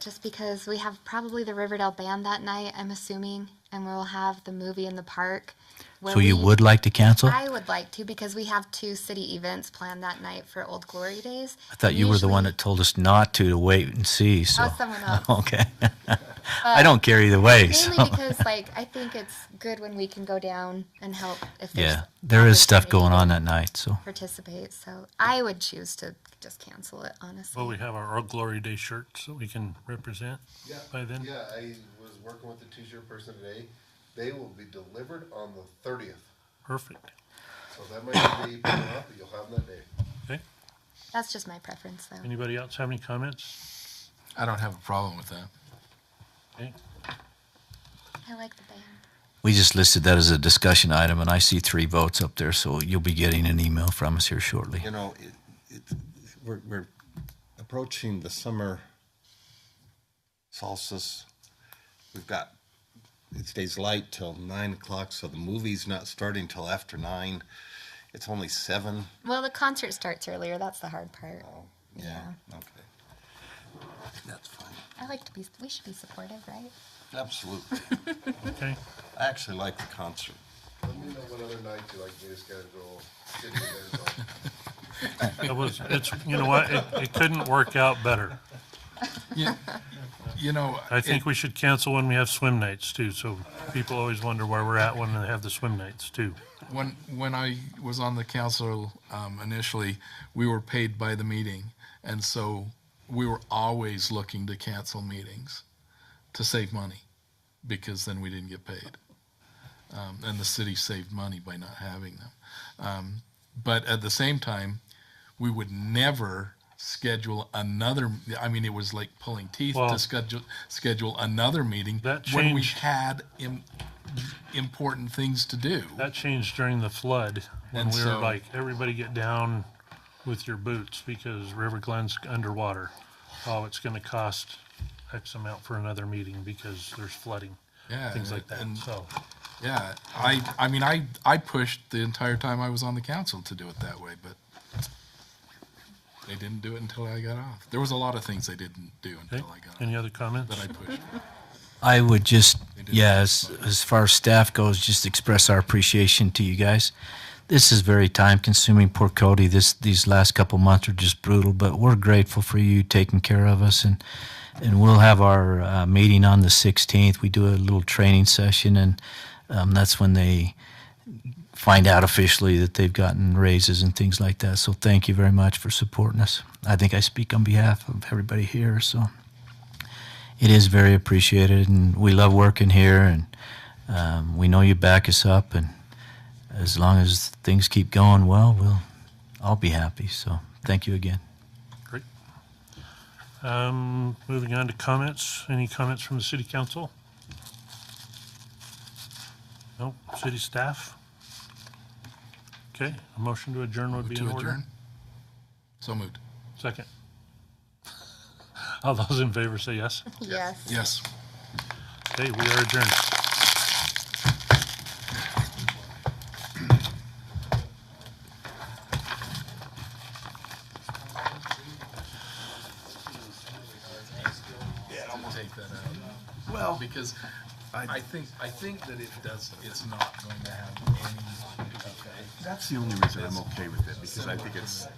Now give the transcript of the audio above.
just because we have probably the Riverdale band that night, I'm assuming, and we'll have the movie in the park. where So you we- would like to cancel? I would like to because we have two city events planned that night for Old Glory Days. I thought you were the one that told us not to, to wait and see, so. someone else. Okay. I don't care either way, so. Mainly because, like, I think it's good when we can go down and help if there's Yeah, there is stuff opportunity going to on that night, so. Participate, so I would choose to just cancel it, honestly. Will we have our Old Glory Day shirts that we can represent Yeah, by then? yeah, I was working with the t-shirt person today. They will be delivered on the thirtieth, Perfect. so that might be picking up, but you'll have them that day. Okay. That's just my preference, though. Anybody else have any comments? I don't have a problem with that. Okay. I like the band. We just listed that as a discussion item, and I see three votes up there, so you'll be getting an email from us here shortly. You know, it, it, we're, we're approaching the summer solstice. We've got, it stays light till nine o'clock, so the movie's not starting till after nine. It's only seven. Well, the concert starts earlier. That's the hard part. Okay. That's fine. I like to be. We should be supportive, right? Absolutely. Okay. I actually like the concert. Let me know what other night you like me to schedule. city events on. It was, it's, you know what? It, it couldn't work out better. You, you know, I think it- we should cancel when we have swim nights too. So people always wonder where we're at when they have the swim nights too. when when I was on the council um, initially, we were paid by the meeting, and so we were always looking to cancel meetings to save money, because then we didn't get paid, um, and the city saved money by not having them. Um, but at the same time, we would never schedule another. I mean, it was like pulling teeth Well- to schedule schedule another meeting That when we changed. had. Im- important things to do. That changed during the flood when And we were so- like, everybody get down with your boots because River Glen's underwater. Oh, it's gonna cost X amount for another meeting because there's flooding, yeah, things like that. and- oh So Yeah, I, I mean, I, I pushed the entire time I was on the council to do it that way, but they didn't do it until I got off. There was a lot of things they didn't do Okay, until I got off any other comments? that I pushed. I would just, do. yeah, as, as far as staff goes, just express our appreciation to you guys. This is very time consuming. Poor Cody, this, these last couple months are just brutal, but we're grateful for you taking care of us and, and we'll have our, uh, meeting on the 16th. We do a little training session and, um, that's when they find out officially that they've gotten raises and things like that. So thank you very much for supporting us. I think I speak on behalf of everybody here, so it is very appreciated, and we love working here, and um, we know you back us up, and as long as things keep going well, we'll I'll be happy. So thank you again. Great. Um, moving on to comments. Any comments from the city council? No, city staff? Okay, a motion to adjourn would be in To order. adjourn? So moved. Second. All those in favor say yes. Yes. Yes. Okay, we are adjourned. Take that out. Well. Because I think, I think that it does, it's not going to have any That's the only reason I'm okay with it, because I think it's